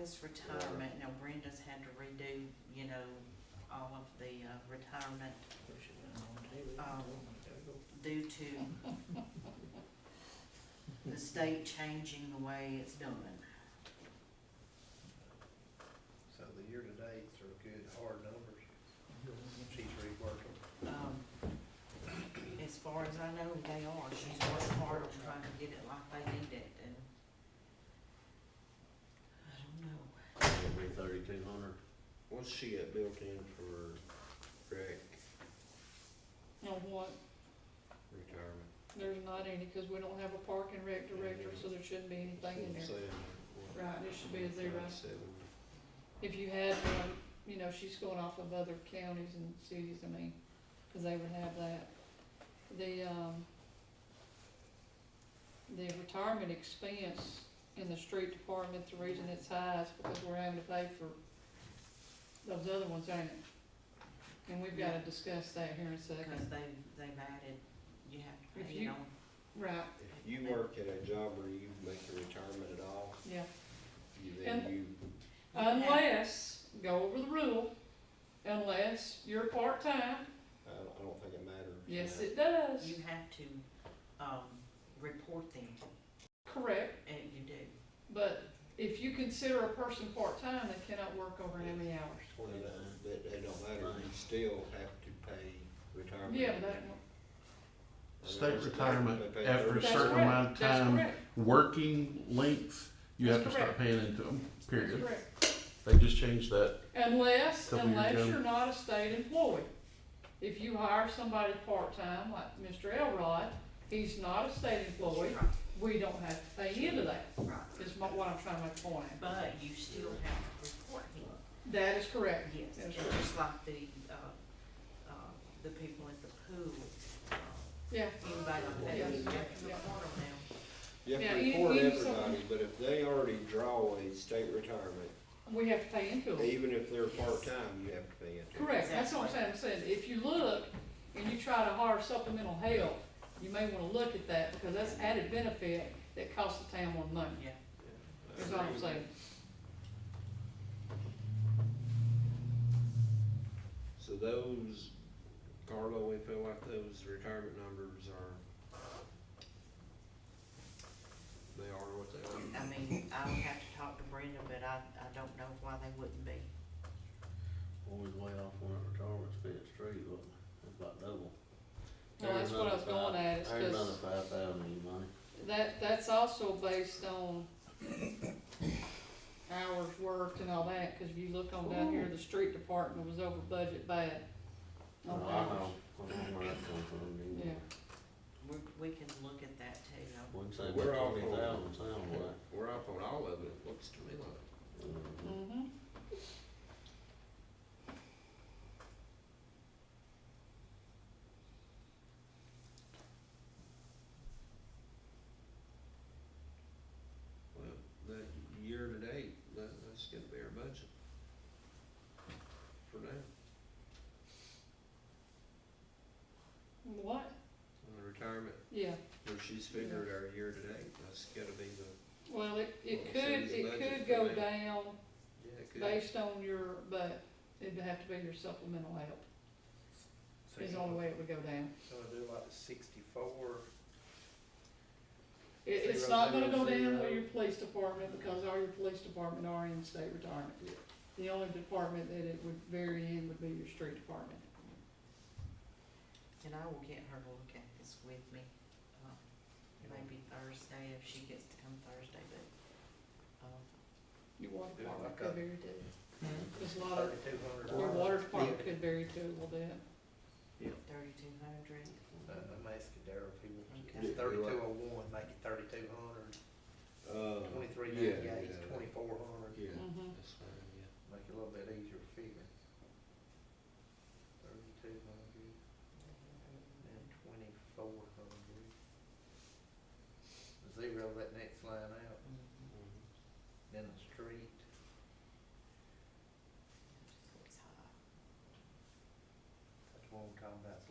his retirement, now Brenda's had to redo, you know, all of the uh, retirement due to the state changing the way it's done. So the year-to-dates are good, hard numbers. She's reworking. Um, As far as I know, they are, she's worked hard on trying to get it like they need it, and I don't know. It'll be thirty-two hundred. What's she got built in for rec No, what, retirement? there's not any, cause we don't have a park and rec director, so there shouldn't be anything in there. Seven, what, Right, it should be a zero. Seven. If you had, um, you know, she's going off of other counties and cities, I mean, cause they would have that. The, um, the retirement expense in the street department, the reason it's high is because we're having to pay for those other ones, ain't it? And we've gotta discuss that here in a Because second. they, they've added, you have to If pay it you- on, Right, If you work at a job where you make a retirement at all, yeah. you then you, Unless, go over the rule, unless you're part-time, I don't, I don't think it matters. yes, now. it does, you have to, um, report them, correct. and you do. But if you consider a person part-time, they cannot work over how many hours? Well, that- that, that don't matter, you still have to pay retirement. Yeah, but that, State retirement They pay after a that's certain $30,000. amount correct, of that's time. correct, Working length, you have to That's start paying into them, that's period. correct. They just changed that. Unless, Couple years ago. unless you're not a state employee. If you hire somebody part-time, like Mr. Elrod, he's not a state employee, we don't have to pay into that, Right. is my- what I'm trying to make a point at. But you still have to report him, That is correct. yes, That's just like the, uh, uh, the people at the pool. uh, Yeah, Anybody like that, you have Yeah. to report them now. You Yeah, have to any- report any everybody, but if they already draw a state retirement, we have to pay into it. even if they're part-time, you have to pay into it. Correct, that's what I'm saying, I'm saying, if you look and you try to hire supplemental help, you may wanna look at that, because that's added benefit that costs the town more money, Yeah, is all Uh, I'm saying. So those, Carlo, we feel like those retirement numbers are, they are what they are. I mean, I would have to talk to Brenda, but I, I don't know why they wouldn't be. Always way off on that retirement expense too, wasn't it? It's about double. Well, that's what I was going at, is There's another cause five thousand in money. that, that's also based on hours worked and all that, cause if you look on down here, the street department was over budget bad. I on know, Oh, I hours. know where that comes from, didn't Yeah, you? We, we can look at that too, though. Wouldn't say We're all about twenty thousand, sound like. We're up on all of it, it looks to me like. Mhm. mm-hmm, Well, that year to date, that, that's gonna be our budget. For now, what? on the retirement, Yeah, where she's figured our year to date, that's gotta be the, well, it, it Well, it could, says it budget could for go that. down yeah, it could. based on your, but it'd have to be your supplemental help, So is you the only way it would go down. wanna do like sixty-four, It, it's Zero, not gonna go zero, down zero. with your police department, because all your police department are in state retirement. Yeah. The only department that it would vary in would be your street department. And I will get her to look at this with me, uh, maybe Thursday, if she gets to come Thursday, but, um, Your water Yeah, department okay. could vary too. There's a lot of, thirty-two hundred your dollars. water department could vary too a little bit. thirty-two hundred. Uh, I'm asking Darryl if he wants Okay. it. Thirty-two oh one, make it thirty-two hundred, Uh, twenty-three yeah, ninety-eight, yeah. twenty-four hundred, Yeah, Mhm. that's fine, yeah. make it a little bit easier to figure. Thirty-two hundred and Mm-hmm. twenty-four hundred. Mm-hmm. Zero that next line out, then the street.